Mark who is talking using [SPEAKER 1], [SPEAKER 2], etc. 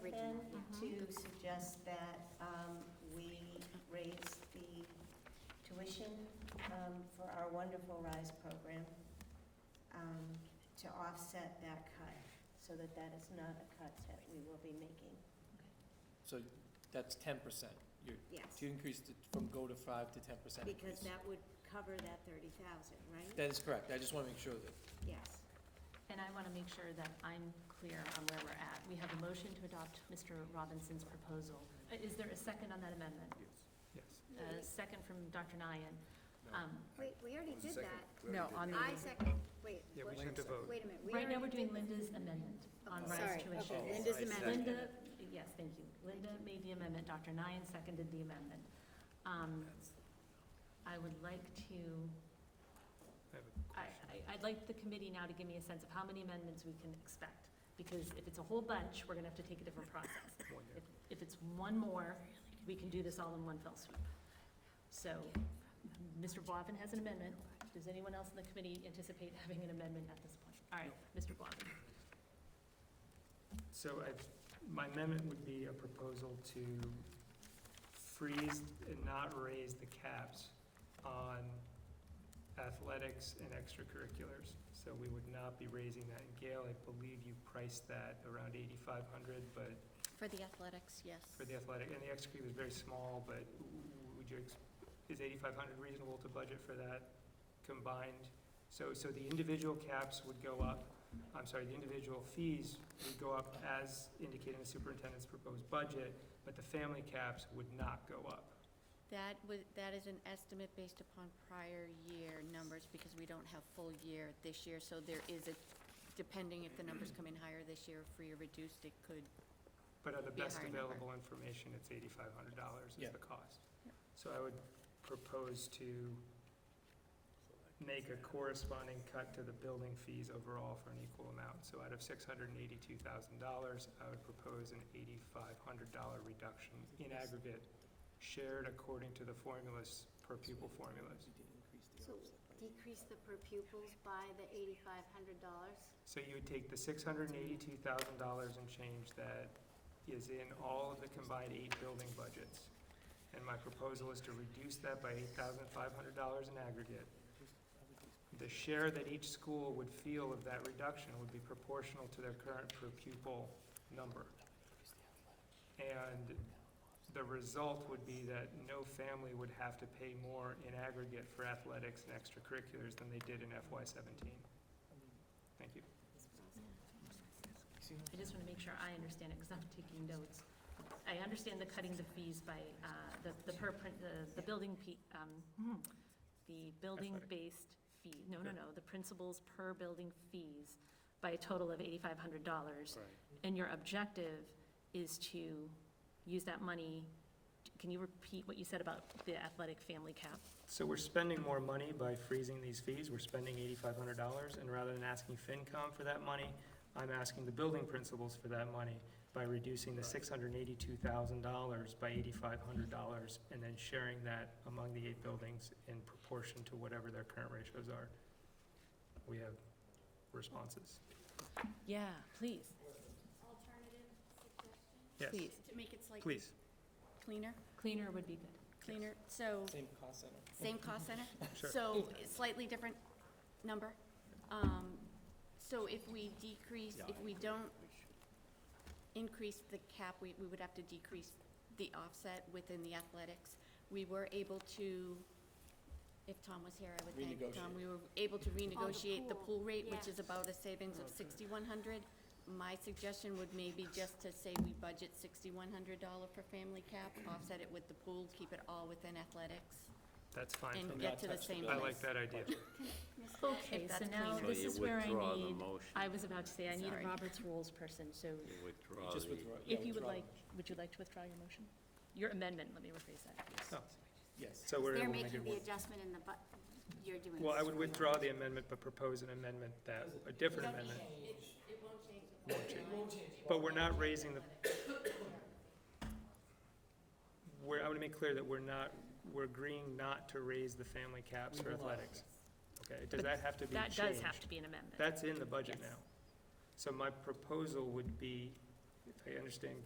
[SPEAKER 1] to suggest that um, we raise the tuition um, for our wonderful RISE program um, to offset that cut, so that that is not a cut that we will be making.
[SPEAKER 2] So that's ten percent. You're,
[SPEAKER 1] Yes,
[SPEAKER 2] to increase the- from go to five to ten percent
[SPEAKER 1] because
[SPEAKER 2] increase.
[SPEAKER 1] that would cover that 30,000, right?
[SPEAKER 2] That is correct. I just want to make sure that,
[SPEAKER 1] Yes.
[SPEAKER 3] And I want to make sure that I'm clear on where we're at. We have a motion to adopt Mr. Robinson's proposal. Uh, Is there a second on that amendment?
[SPEAKER 4] Yes.
[SPEAKER 3] A second from Dr. Nyan. Um,
[SPEAKER 5] Wait, we already did that.
[SPEAKER 6] No, on the.
[SPEAKER 5] I second, wait,
[SPEAKER 4] Yeah, we
[SPEAKER 5] wait
[SPEAKER 4] just have to vote.
[SPEAKER 5] wait a minute. we
[SPEAKER 3] Right now, we're
[SPEAKER 5] already
[SPEAKER 3] doing
[SPEAKER 5] did this.
[SPEAKER 3] Linda's amendment on
[SPEAKER 5] Okay,
[SPEAKER 3] rise
[SPEAKER 5] Sorry,
[SPEAKER 3] tuition.
[SPEAKER 5] okay, Linda's amendment.
[SPEAKER 3] Linda, yes, thank you. Linda made the amendment, Dr. Nyan seconded the amendment. Um, I would like to,
[SPEAKER 4] I have a
[SPEAKER 3] I,
[SPEAKER 4] question.
[SPEAKER 3] I- I'd like the committee now to give me a sense of how many amendments we can expect, because if it's a whole bunch, we're going to have to take a different process.
[SPEAKER 4] One there.
[SPEAKER 3] If- If it's one more, we can do this all in one fell swoop. So, Mr. Boivin has an amendment. Does anyone else in the committee anticipate having an amendment at this point? All right, Mr. Boivin.
[SPEAKER 4] So I, my amendment would be a proposal to freeze and not raise the caps on athletics and extracurriculars. So we would not be raising that. And Gail, I believe you priced that around eighty-five hundred, but
[SPEAKER 5] For the athletics, yes.
[SPEAKER 4] for the athletic, and the extracurricular is very small, but would you, ex- is eighty-five hundred reasonable to budget for that combined? So, so the individual caps would go up, I'm sorry, the individual fees would go up as indicated in the superintendent's proposed budget, but the family caps would not go up.
[SPEAKER 5] That was, that is an estimate based upon prior year numbers, because we don't have full year this year, so there is a, depending if the numbers come in higher this year, free or reduced, it could.
[SPEAKER 4] But on the
[SPEAKER 5] Be a
[SPEAKER 4] best
[SPEAKER 5] higher number.
[SPEAKER 4] available information, it's eighty-five hundred dollars
[SPEAKER 2] Yeah.
[SPEAKER 4] is the cost.
[SPEAKER 5] Yep.
[SPEAKER 4] So I would propose to make a corresponding cut to the building fees overall for an equal amount. So out of six hundred and eighty-two thousand dollars, I would propose an eighty-five hundred dollar reduction in aggregate, shared according to the formulas, per pupil formulas.
[SPEAKER 2] we did increase the
[SPEAKER 7] So
[SPEAKER 2] offset by-
[SPEAKER 7] decrease the per pupils by the eighty-five hundred dollars?
[SPEAKER 4] So you would take the six hundred and eighty-two thousand dollars and change that is in all of the combined eight building budgets. And my proposal is to reduce that by eight thousand five hundred dollars in aggregate. The share that each school would feel of that reduction would be proportional to their current per pupil number. And the result would be that no family would have to pay more in aggregate for athletics and extracurriculars than they did in FY seventeen. Thank you.
[SPEAKER 3] I just want to make sure I understand it, because I'm taking notes. I understand the cutting the fees by, uh, the, the per, prin- the, the building, pe- um, hmm, the building-based fee, no, no, no, the principals per building fees by a total of eighty-five hundred dollars. And your objective is to use that money, can you repeat what you said about the athletic family cap?
[SPEAKER 4] So we're spending more money by freezing these fees, we're spending eighty-five hundred dollars, and rather than asking FinCom for that money, I'm asking the building principals for that money by reducing the six hundred and eighty-two thousand dollars by eighty-five hundred dollars, and then sharing that among the eight buildings in proportion to whatever their current ratios are. We have responses.
[SPEAKER 3] Yeah, please.
[SPEAKER 7] Alternative suggestion?
[SPEAKER 4] Yes,
[SPEAKER 5] Please.
[SPEAKER 7] To make it slightly
[SPEAKER 4] please.
[SPEAKER 5] Cleaner,
[SPEAKER 3] Cleaner would be good.
[SPEAKER 5] cleaner, so,
[SPEAKER 2] Same cost center.
[SPEAKER 5] same cost center?
[SPEAKER 4] Sure.
[SPEAKER 5] So slightly different number. Um, So if we decrease, if we don't increase the cap, we, we would have to decrease the offset within the athletics. We were able to, if Tom was here, I would thank Tom,
[SPEAKER 2] Renegotiate.
[SPEAKER 5] we were able to renegotiate the
[SPEAKER 7] Oh, pool,
[SPEAKER 5] pool rate, which is
[SPEAKER 7] yes.
[SPEAKER 5] about a savings of sixty-one hundred. My suggestion would maybe just to say we budget sixty-one hundred dollar for family cap, offset it with the pool, keep it all within athletics,
[SPEAKER 4] That's fine.
[SPEAKER 5] and
[SPEAKER 2] not
[SPEAKER 5] get to the
[SPEAKER 2] touch the
[SPEAKER 5] same
[SPEAKER 4] I
[SPEAKER 5] place.
[SPEAKER 4] like that idea.
[SPEAKER 3] Okay,
[SPEAKER 5] If
[SPEAKER 3] so
[SPEAKER 5] that's
[SPEAKER 3] now
[SPEAKER 5] cleaner.
[SPEAKER 3] this
[SPEAKER 8] So you
[SPEAKER 3] is where I
[SPEAKER 8] withdraw the
[SPEAKER 3] need,
[SPEAKER 8] motion.
[SPEAKER 3] I was about to say, I need a
[SPEAKER 5] Sorry.
[SPEAKER 3] Robert's Rules person, so
[SPEAKER 8] You
[SPEAKER 2] You
[SPEAKER 8] withdraw
[SPEAKER 2] Just
[SPEAKER 8] the-
[SPEAKER 2] withdraw. yeah,
[SPEAKER 3] if you would
[SPEAKER 2] withdraw.
[SPEAKER 3] like, would you like to withdraw your motion? Your amendment, let me rephrase that.
[SPEAKER 4] No.
[SPEAKER 2] Yes.
[SPEAKER 4] So we're
[SPEAKER 7] They're
[SPEAKER 4] able to make
[SPEAKER 7] making
[SPEAKER 4] it
[SPEAKER 7] the
[SPEAKER 4] work.
[SPEAKER 7] adjustment in the, bu- you're doing this.
[SPEAKER 4] Well, I would withdraw the amendment, but propose an amendment that, a different amendment. But we're not raising the, we're, I want to make clear that we're not, we're agreeing not to raise the family caps for athletics. Okay, does that have to be
[SPEAKER 3] That
[SPEAKER 4] changed?
[SPEAKER 3] does have to be an amendment.
[SPEAKER 4] That's in the budget
[SPEAKER 3] Yes.
[SPEAKER 4] now. So my proposal would be, if I understand